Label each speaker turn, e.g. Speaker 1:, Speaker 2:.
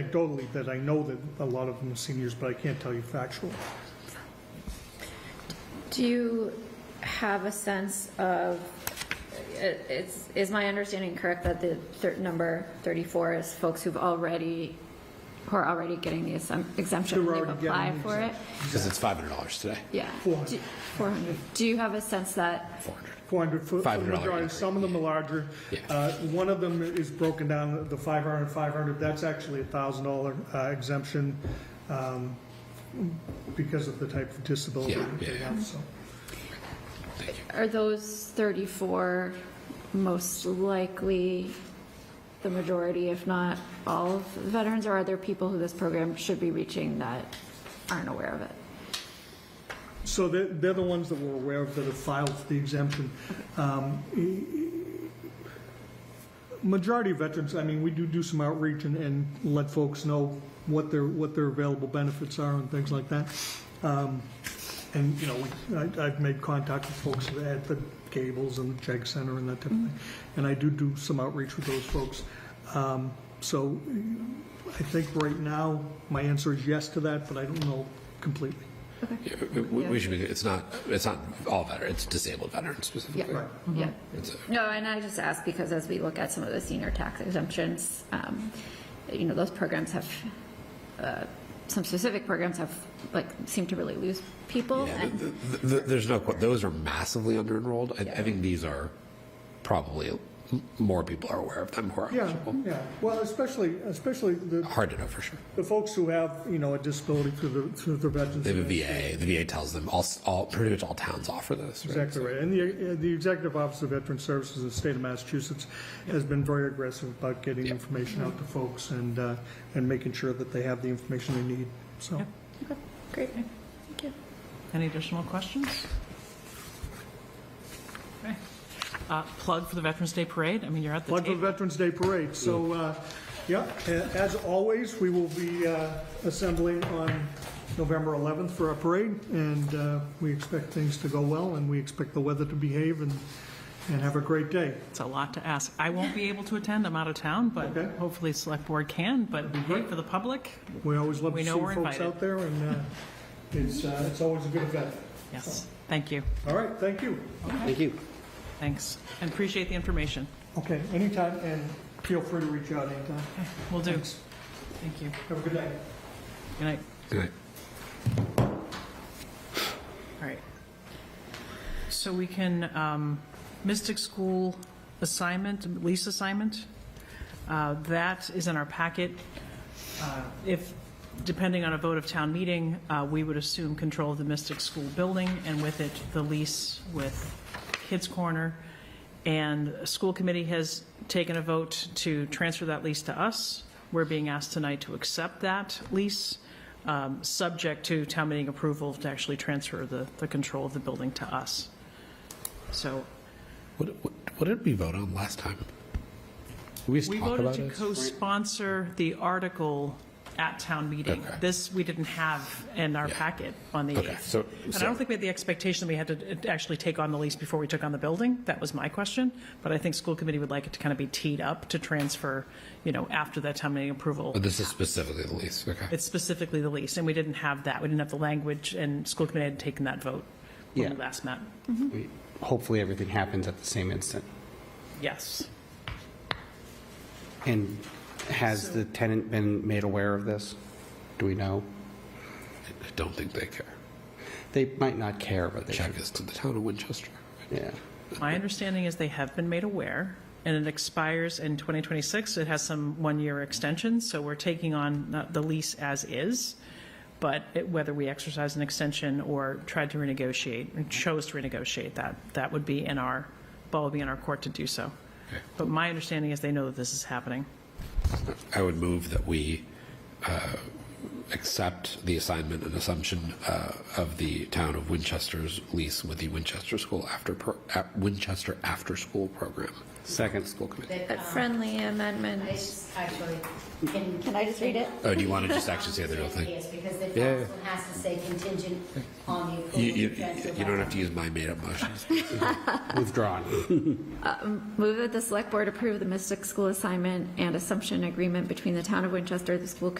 Speaker 1: anecdotally that I know that a lot of them are seniors, but I can't tell you factual.
Speaker 2: Do you have a sense of, i- it's, is my understanding correct that the thir- number 34 is folks who've already, who are already getting the exemp- exemption?
Speaker 1: Who are
Speaker 2: They've
Speaker 1: already getting
Speaker 2: applied
Speaker 1: the
Speaker 2: for it?
Speaker 3: Because it's $500 today,
Speaker 2: Yeah.
Speaker 1: Four hundred.
Speaker 2: Do- 400. Do you have a sense that,
Speaker 3: 400.
Speaker 1: 400 foot, for the
Speaker 3: $500
Speaker 1: majority,
Speaker 3: increase.
Speaker 1: some of them are larger.
Speaker 3: Yeah.
Speaker 1: Uh, One of them is broken down, the 500, 500, that's actually a $1,000 uh, exemption um, because of the type of disability
Speaker 3: Yeah,
Speaker 1: that they
Speaker 3: yeah.
Speaker 1: have, so.
Speaker 2: are those 34 most likely the majority, if not all of the veterans? Or are there people who this program should be reaching that aren't aware of it?
Speaker 1: So they're, they're the ones that we're aware of that have filed for the exemption. Um, e- Majority of veterans, I mean, we do do some outreach and, and let folks know what their, what their available benefits are and things like that. Um, And, you know, we- I, I've made contact with folks at the Gables and the Jag Center and that type of thing. And I do do some outreach with those folks. Um, So I think right now, my answer is yes to that, but I don't know completely.
Speaker 3: Yeah, we- We we should be, it's not, it's not all veterans, it's disabled veterans specifically.
Speaker 2: Yeah, yeah.
Speaker 1: Mm-hmm.
Speaker 3: It's a-
Speaker 2: No, and I just ask because as we look at some of the senior tax exemptions, um, you know, those programs have, uh, some specific programs have, like, seem to really lose people.
Speaker 3: yeah,
Speaker 2: and-
Speaker 3: th- th- th- There's no, que- those are massively under-enrolled. I I think these are probably, m- more people are aware of them, who are
Speaker 1: Yeah,
Speaker 3: eligible.
Speaker 1: yeah. Well, especially, especially the,
Speaker 3: Hard to know for sure.
Speaker 1: the folks who have, you know, a disability through the, through the veterans.
Speaker 3: They have a VA, the VA tells them, all, s- all, pretty much all towns offer this, right?
Speaker 1: Exactly right. And the, uh, the Executive Office of Veteran Services in the state of Massachusetts has been very aggressive about getting information out to folks and, uh, and making sure that they have the information they need, so.
Speaker 2: Great, thank you.
Speaker 4: Any additional questions? Okay. Uh, Plug for the Veterans Day Parade, I mean, you're at the
Speaker 1: Plug for the
Speaker 4: table.
Speaker 1: Veterans Day Parade. So, uh, yeah, a- as always, we will be uh, assembling on November 11th for our parade, and uh, we expect things to go well, and we expect the weather to behave and, and have a great day.
Speaker 4: It's a lot to ask. I won't be able to attend, I'm out of town, but
Speaker 1: Okay.
Speaker 4: hopefully Select Board can, but hey, for the public,
Speaker 1: We always love to
Speaker 4: We
Speaker 1: see
Speaker 4: know we're
Speaker 1: folks
Speaker 4: invited.
Speaker 1: out there, and uh, it's, uh, it's always a good event.
Speaker 4: yes, thank you,
Speaker 1: All right, thank you.
Speaker 3: Thank you.
Speaker 4: thanks, and appreciate the information.
Speaker 1: Okay, anytime, and feel free to reach out anytime.
Speaker 4: Will do,
Speaker 1: Thanks.
Speaker 4: thank you.
Speaker 1: Have a good night.
Speaker 4: Good night.
Speaker 3: Good night.
Speaker 4: All right. So we can, um, Mystic School assignment, lease assignment, uh, that is in our packet. Uh, If, depending on a vote of town meeting, uh, we would assume control of the Mystic School building, and with it, the lease with Kids Corner. And the school committee has taken a vote to transfer that lease to us. We're being asked tonight to accept that lease, um, subject to town meeting approval to actually transfer the, the control of the building to us. So
Speaker 3: What, what what did we vote on last time? Did we just
Speaker 4: We
Speaker 3: talk
Speaker 4: voted
Speaker 3: about
Speaker 4: to
Speaker 3: it?
Speaker 4: co-sponsor the article at town meeting.
Speaker 3: Okay.
Speaker 4: This, we didn't have in our packet on the
Speaker 3: Okay,
Speaker 4: 8th.
Speaker 3: so-
Speaker 4: And I
Speaker 3: so-
Speaker 4: don't think we had the expectation that we had to uh, actually take on the lease before we took on the building. That was my question. But I think school committee would like it to kind of be teed up to transfer, you know, after that town meeting approval.
Speaker 3: But Oh, this is specifically the lease, okay.
Speaker 4: It's specifically the lease, and we didn't have that. We didn't have the language, and school committee had taken that vote when we
Speaker 5: Yeah.
Speaker 4: last met.
Speaker 5: We- Hopefully, everything happens at the same instant.
Speaker 4: Yes.
Speaker 5: And has the tenant been made aware of this? Do we know?
Speaker 3: I don't think they care.
Speaker 5: They might not care, but they should.
Speaker 3: Check is to the town of Winchester.
Speaker 5: Yeah.
Speaker 4: My understanding is they have been made aware, and it expires in 2026. It has some one-year extensions, so we're taking on uh, the lease as is. But it- whether we exercise an extension or tried to renegotiate, or chose to renegotiate that, that would be in our, ball would be in our court to do so. But my understanding is they know that this is happening.
Speaker 3: I would move that we uh, accept the assignment and assumption uh, of the town of Winchester's lease with the Winchester School After, pro- at Winchester After School Program.
Speaker 5: Second.
Speaker 3: School committee.
Speaker 2: A friendly amendment.
Speaker 6: Um, I just actually can.
Speaker 2: Can I just read it?
Speaker 3: Oh, do you want to just actually say the real thing?
Speaker 6: Yes, because the
Speaker 3: Yeah, yeah.
Speaker 6: council has to say contingent on the
Speaker 3: You,
Speaker 6: approval.
Speaker 3: you,
Speaker 6: of transfer
Speaker 3: you don't
Speaker 6: by-
Speaker 3: have to use my made-up motions.
Speaker 5: Withdrawn.
Speaker 2: Move that the select board approve the Mystic School assignment and assumption agreement between the town of Winchester, the school